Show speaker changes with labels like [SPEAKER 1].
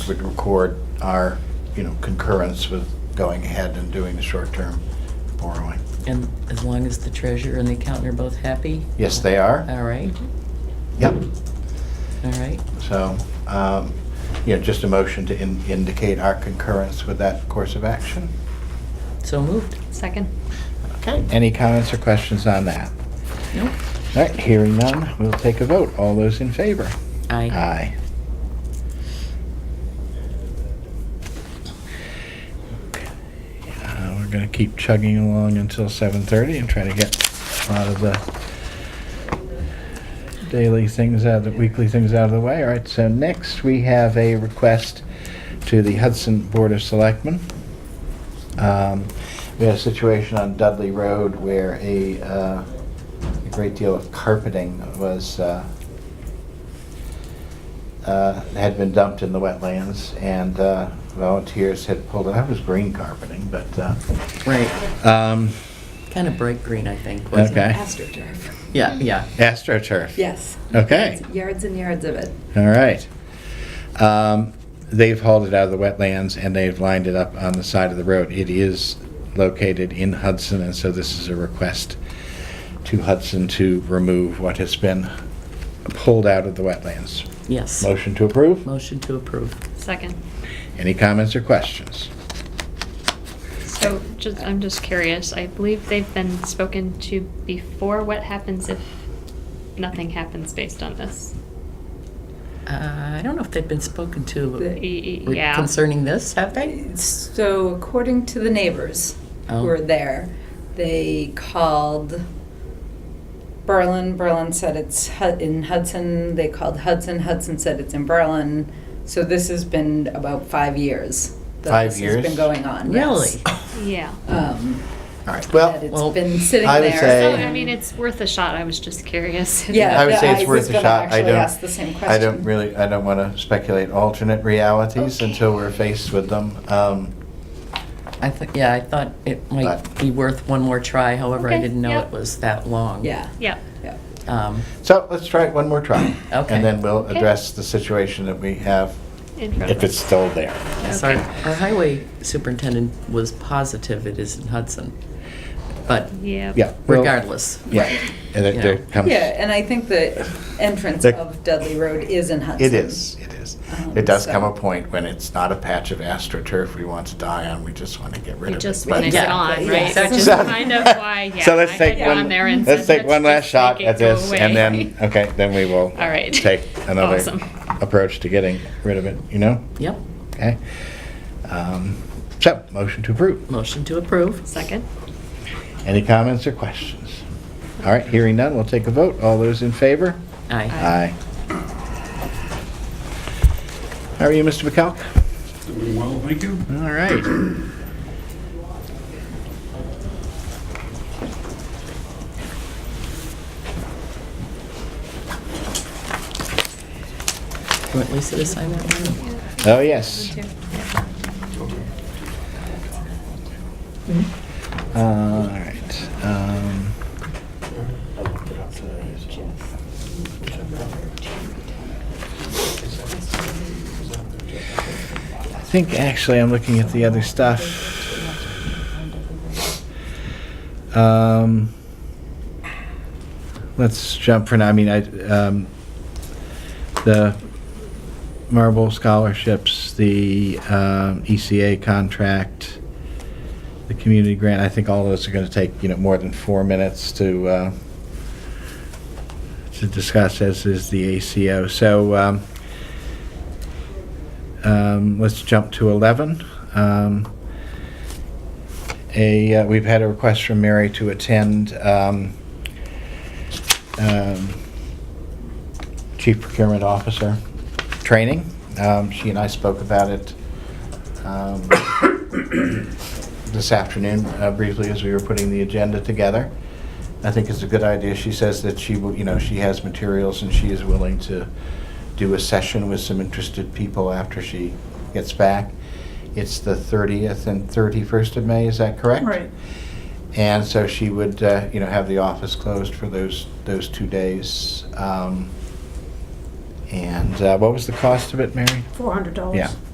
[SPEAKER 1] minutes would record our, you know, concurrence with going ahead and doing the short-term borrowing.
[SPEAKER 2] And as long as the treasurer and the accountant are both happy?
[SPEAKER 1] Yes, they are.
[SPEAKER 2] All right,
[SPEAKER 1] Yep.
[SPEAKER 2] all right.
[SPEAKER 1] So, um, you know, just a motion to in- indicate our concurrence with that course of action.
[SPEAKER 2] So moved.
[SPEAKER 3] Second.
[SPEAKER 1] Okay. Any comments or questions on that?
[SPEAKER 2] Nope.
[SPEAKER 1] All right, hearing none, we'll take a vote. All those in favor?
[SPEAKER 2] Aye.
[SPEAKER 1] Aye. Uh, We're gonna keep chugging along until 7:30 and try to get a lot of the daily things out, the weekly things out of the way. All right, so next we have a request to the Hudson Board of Selectmen. Um, We had a situation on Dudley Road where a uh, a great deal of carpeting was uh, uh, had been dumped in the wetlands, and uh, volunteers had pulled it. I was green carpeting, but uh,
[SPEAKER 2] Right,
[SPEAKER 1] um,
[SPEAKER 2] kind of bright green, I think, wasn't it?
[SPEAKER 1] Okay.
[SPEAKER 3] AstroTurf.
[SPEAKER 2] Yeah, yeah.
[SPEAKER 1] astroturf.
[SPEAKER 3] Yes.
[SPEAKER 1] Okay.
[SPEAKER 3] Yards and yards of it.
[SPEAKER 1] All right. Um, they've hauled it out of the wetlands and they've lined it up on the side of the road. It is located in Hudson, and so this is a request to Hudson to remove what has been pulled out of the wetlands.
[SPEAKER 2] Yes.
[SPEAKER 1] Motion to approve.
[SPEAKER 2] Motion to approve.
[SPEAKER 3] Second.
[SPEAKER 1] Any comments or questions?
[SPEAKER 3] So just, I'm just curious, I believe they've been spoken to before. What happens if nothing happens based on this?
[SPEAKER 2] Uh, I don't know if they've been spoken
[SPEAKER 3] E-
[SPEAKER 2] to
[SPEAKER 4] The-
[SPEAKER 3] e-
[SPEAKER 2] re-
[SPEAKER 3] Yeah.
[SPEAKER 2] concerning this, have they?
[SPEAKER 4] So according to the neighbors
[SPEAKER 2] Oh.
[SPEAKER 4] who were there, they called Berlin. Berlin said it's Hu- in Hudson. They called Hudson. Hudson said it's in Berlin. So this has been about five years. that
[SPEAKER 1] Five
[SPEAKER 4] this
[SPEAKER 1] years?
[SPEAKER 4] has been going on.
[SPEAKER 2] Really?
[SPEAKER 4] Yes.
[SPEAKER 3] Yeah.
[SPEAKER 4] Um,
[SPEAKER 1] All right,
[SPEAKER 4] that
[SPEAKER 1] well,
[SPEAKER 4] it's
[SPEAKER 2] Well,
[SPEAKER 4] been sitting
[SPEAKER 1] I would
[SPEAKER 4] there.
[SPEAKER 1] say-
[SPEAKER 3] So, I mean, it's worth a shot. I was just curious.
[SPEAKER 4] Yeah,
[SPEAKER 1] I would
[SPEAKER 4] that-
[SPEAKER 1] say
[SPEAKER 4] I
[SPEAKER 1] it's
[SPEAKER 4] was
[SPEAKER 1] worth a
[SPEAKER 4] gonna
[SPEAKER 1] shot. I
[SPEAKER 4] actually
[SPEAKER 1] don't.
[SPEAKER 4] ask the same
[SPEAKER 1] I don't
[SPEAKER 4] question.
[SPEAKER 1] really, I don't want to speculate alternate realities until we're faced with them. Um,
[SPEAKER 2] I think, yeah, I thought it might
[SPEAKER 1] But-
[SPEAKER 2] be worth one more try, however, I
[SPEAKER 3] Okay,
[SPEAKER 2] didn't know
[SPEAKER 3] yeah.
[SPEAKER 2] it was that long.
[SPEAKER 4] Yeah.
[SPEAKER 3] Yeah.
[SPEAKER 4] Yeah.
[SPEAKER 2] Um,
[SPEAKER 1] So let's try it one more try.
[SPEAKER 2] Okay.
[SPEAKER 1] And then we'll
[SPEAKER 3] Okay.
[SPEAKER 1] address the situation that we have,
[SPEAKER 3] In front of
[SPEAKER 1] if it's
[SPEAKER 3] us.
[SPEAKER 1] still there.
[SPEAKER 2] Yes, our,
[SPEAKER 3] Okay.
[SPEAKER 2] our highway superintendent was positive it is in Hudson, but
[SPEAKER 3] Yeah.
[SPEAKER 1] Yeah. we'll-
[SPEAKER 2] regardless.
[SPEAKER 1] Yeah. And then there comes.
[SPEAKER 4] Yeah, and I think the entrance
[SPEAKER 1] The-
[SPEAKER 4] of Dudley Road is in Hudson.
[SPEAKER 1] It is, it is.
[SPEAKER 4] Um,
[SPEAKER 1] It does come
[SPEAKER 4] so-
[SPEAKER 1] a point when it's not a patch of astroturf we want to die on, we just want to get rid
[SPEAKER 3] We
[SPEAKER 1] of it.
[SPEAKER 3] just
[SPEAKER 1] but-
[SPEAKER 3] want to
[SPEAKER 2] Yeah.
[SPEAKER 3] get on,
[SPEAKER 2] Yeah.
[SPEAKER 3] right? Which is
[SPEAKER 1] So-
[SPEAKER 3] kind of why, yeah.
[SPEAKER 1] So let's
[SPEAKER 3] I
[SPEAKER 1] take
[SPEAKER 3] had
[SPEAKER 1] one,
[SPEAKER 3] gone there and
[SPEAKER 1] let's
[SPEAKER 3] said,
[SPEAKER 1] take one
[SPEAKER 3] "Let's
[SPEAKER 1] last
[SPEAKER 3] just
[SPEAKER 1] shot
[SPEAKER 3] make it
[SPEAKER 1] at
[SPEAKER 3] go
[SPEAKER 1] this, and
[SPEAKER 3] away."
[SPEAKER 1] then, okay, then we will
[SPEAKER 3] All right.
[SPEAKER 1] take another
[SPEAKER 3] Awesome.
[SPEAKER 1] approach to getting rid of it, you know?
[SPEAKER 2] Yep,
[SPEAKER 1] Okay? Um, So, motion to approve.
[SPEAKER 2] motion to approve.
[SPEAKER 3] Second.
[SPEAKER 1] Any comments or questions? All right, hearing none, we'll take a vote. All those in favor?
[SPEAKER 2] Aye.
[SPEAKER 1] Aye. How are you, Mr. McCall?
[SPEAKER 5] Doing well, thank you.
[SPEAKER 1] All right.
[SPEAKER 2] You want Lisa to sign that one?
[SPEAKER 1] Oh, yes. All right. um, I think actually I'm looking at the other stuff. Um, Let's jump for now, I mean, I, um, the Marble scholarships, the um, ECA contract, the community grant, I think all those are going to take, you know, more than four minutes to, uh, to discuss, as is the ACO. So um, um, let's jump to 11. Um, A, uh, we've had a request from Mary to attend um, um, Chief Procurement Officer training. Um, She and I spoke about it um, this afternoon uh, briefly as we were putting the agenda together. I think it's a good idea. She says that she will, you know, she has materials and she is willing to do a session with some interested people after she gets back. It's the 30th and 31st of May, is that correct?
[SPEAKER 4] Right.
[SPEAKER 1] And so she would, uh, you know, have the office closed for those, those two days. Um, And uh, what was the cost of it, Mary?
[SPEAKER 6] Four hundred dollars.
[SPEAKER 1] Yeah.